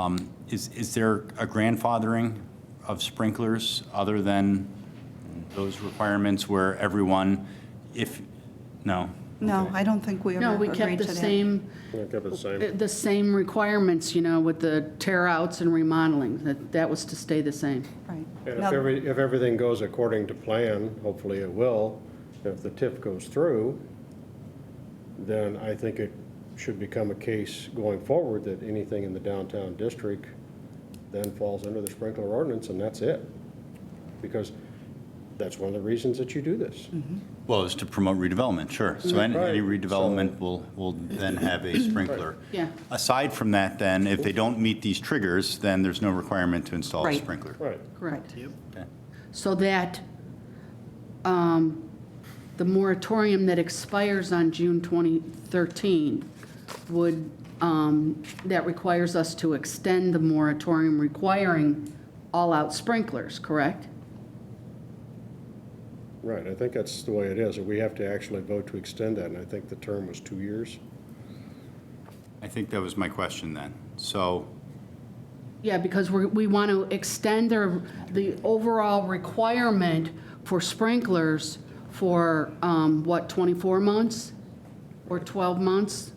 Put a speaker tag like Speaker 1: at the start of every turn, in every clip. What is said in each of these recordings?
Speaker 1: Um, Is, is there a grandfathering of sprinklers other than those requirements where everyone, if, no?
Speaker 2: No, I don't think we
Speaker 3: No,
Speaker 2: ever
Speaker 3: we
Speaker 2: agreed to that.
Speaker 3: kept the same,
Speaker 4: Yeah, kept it the same.
Speaker 3: the same requirements, you know, with the tear outs and remodeling. That, that was to stay the same.
Speaker 2: Right.
Speaker 4: And if
Speaker 2: Now-
Speaker 4: every, if everything goes according to plan, hopefully it will, if the TIF goes through, then I think it should become a case going forward that anything in the downtown district then falls under the sprinkler ordinance, and that's it. Because that's one of the reasons that you do this.
Speaker 1: Well, it's to promote redevelopment, sure. So any
Speaker 4: Right.
Speaker 1: any redevelopment will, will then have a sprinkler.
Speaker 3: Yeah.
Speaker 1: Aside from that, then, if they don't meet these triggers, then there's no requirement to install a
Speaker 2: Right.
Speaker 1: sprinkler.
Speaker 4: Right.
Speaker 3: Correct.
Speaker 1: Okay.
Speaker 3: So that um, the moratorium that expires on June 2013 would, um, that requires us to extend the moratorium requiring all-out sprinklers, correct?
Speaker 4: Right, I think that's the way it is, and we have to actually vote to extend that, and I think the term was two years.
Speaker 1: I think that was my question then. So,
Speaker 3: Yeah, because we, we want to extend their, the overall requirement for sprinklers for, um, what, 24 months? Or 12 months?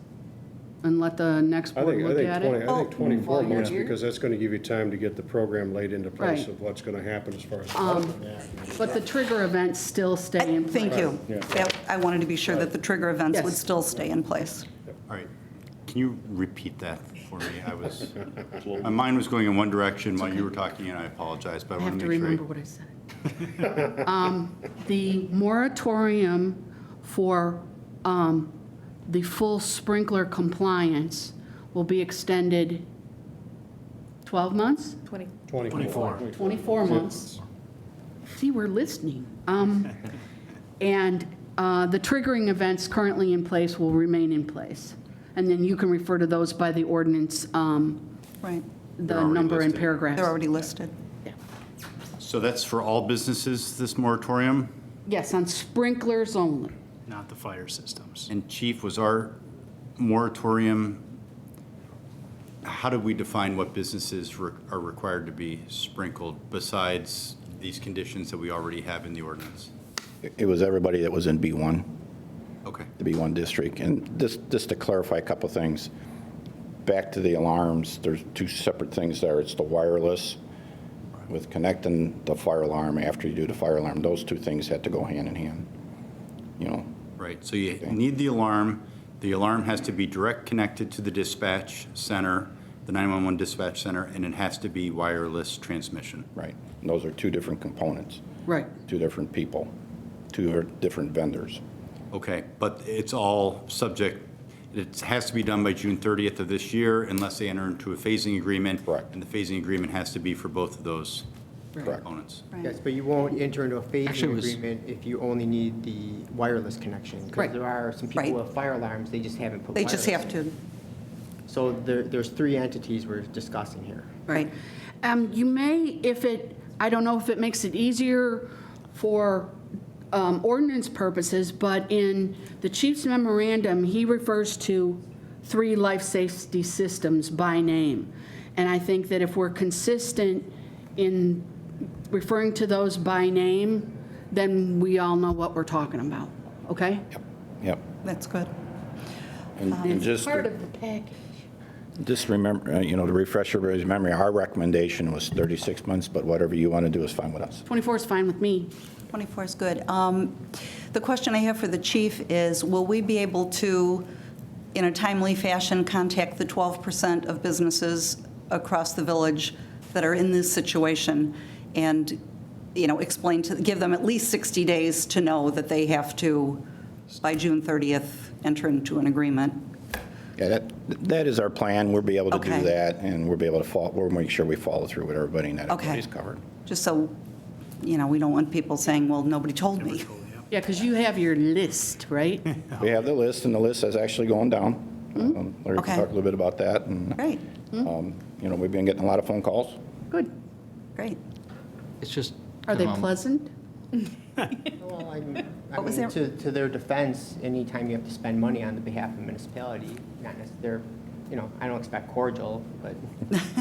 Speaker 3: And let the next
Speaker 4: I
Speaker 3: board
Speaker 4: think, I
Speaker 3: look
Speaker 4: think
Speaker 3: at
Speaker 4: 20,
Speaker 3: it?
Speaker 4: I think 24
Speaker 5: all
Speaker 4: months,
Speaker 5: year?
Speaker 4: because that's going to give you time to get the program laid into place
Speaker 3: Right. Um,
Speaker 4: of what's going to happen as far as. development.
Speaker 3: But the trigger events still stay in place.
Speaker 2: Thank you. That- I wanted to be sure that the trigger events would
Speaker 3: Yes.
Speaker 2: still stay in place.
Speaker 1: all right, can you repeat that for me? I was, my mind was going in one direction while you were talking, and I apologize, but I
Speaker 3: I have
Speaker 1: want
Speaker 3: to
Speaker 1: to make sure.
Speaker 3: remember what I said. Um, The moratorium for um, the full sprinkler compliance will be extended 12 months?
Speaker 5: 20.
Speaker 4: 24.
Speaker 3: 24 months. See, we're listening. Um, And uh, the triggering events currently in place will remain in place. And then you can refer to those by the ordinance, um,
Speaker 2: Right.
Speaker 3: the
Speaker 1: already
Speaker 3: number and
Speaker 1: listed.
Speaker 3: paragraphs.
Speaker 2: They're already listed.
Speaker 1: So that's for all businesses, this moratorium?
Speaker 3: Yes, on sprinklers only.
Speaker 6: not the fire systems.
Speaker 1: And Chief, was our moratorium, how do we define what businesses re- are required to be sprinkled besides these conditions that we already have in the ordinance?
Speaker 7: It was everybody that was in B1,
Speaker 1: Okay.
Speaker 7: the B1 district. And just, just to clarify a couple things, back to the alarms, there's two separate things there. It's the wireless with connecting the fire alarm after you do the fire alarm. Those two things had to go hand in hand, you know?
Speaker 1: Right, so you need the alarm. The alarm has to be direct connected to the dispatch center, the 911 dispatch center, and it has to be wireless transmission.
Speaker 7: Right. And those are two different components,
Speaker 3: Right.
Speaker 7: two different people, two er, different vendors.
Speaker 1: Okay, but it's all subject, it has to be done by June 30th of this year unless they enter into a phasing agreement.
Speaker 7: Correct.
Speaker 1: And the phasing agreement has to be for both of those
Speaker 7: Correct.
Speaker 1: components.
Speaker 5: Yes, but you won't enter into a
Speaker 6: Actually, it
Speaker 5: phasing
Speaker 6: was-
Speaker 5: agreement if you only need the wireless connection.
Speaker 3: Right.
Speaker 5: Because there are some people
Speaker 2: Right.
Speaker 5: who have fire alarms, they just haven't put
Speaker 2: They
Speaker 5: wireless.
Speaker 2: just have to,
Speaker 5: So there, there's three entities we're discussing here.
Speaker 2: right.
Speaker 3: Um, You may, if it, I don't know if it makes it easier for um, ordinance purposes, but in the chief's memorandum, he refers to three life safety systems by name. And I think that if we're consistent in referring to those by name, then we all know what we're talking about, okay?
Speaker 7: Yep.
Speaker 2: That's good.
Speaker 7: And- And just.
Speaker 3: Part of the package.
Speaker 7: Just remember, uh, you know, to refresh everybody's memory, our recommendation was 36 months, but whatever you want to do is fine with us.
Speaker 3: 24 is fine with me.
Speaker 2: 24 is good. Um, The question I have for the chief is, will we be able to, in a timely fashion, contact the 12% of businesses across the village that are in this situation and, you know, explain to, give them at least 60 days to know that they have to, by June 30th, enter into an agreement?
Speaker 7: Yeah, that, that is our plan. We'll be able to
Speaker 2: Okay.
Speaker 7: do that, and we'll be able to follow, we'll make sure we follow through with everybody and that
Speaker 2: Okay.
Speaker 7: everybody's covered.
Speaker 2: Just so, you know, we don't want people saying, well, nobody told me.
Speaker 3: Yeah, because you have your list, right?
Speaker 7: We have the list, and the list is actually going down. Um, Larry
Speaker 2: Mm-hmm. Okay. Mm-hmm.
Speaker 7: can talk a little bit about that, and,
Speaker 2: Great,
Speaker 7: um, you know, we've been getting a lot of phone calls.
Speaker 3: Good.
Speaker 2: great.
Speaker 8: It's just.
Speaker 3: Are they
Speaker 8: um,
Speaker 3: pleasant?
Speaker 5: Well, I I
Speaker 2: What was
Speaker 5: mean,
Speaker 2: there-
Speaker 5: to, to their defense, anytime you have to spend money on the behalf of municipality, not necessarily, you know, I don't expect cordial, but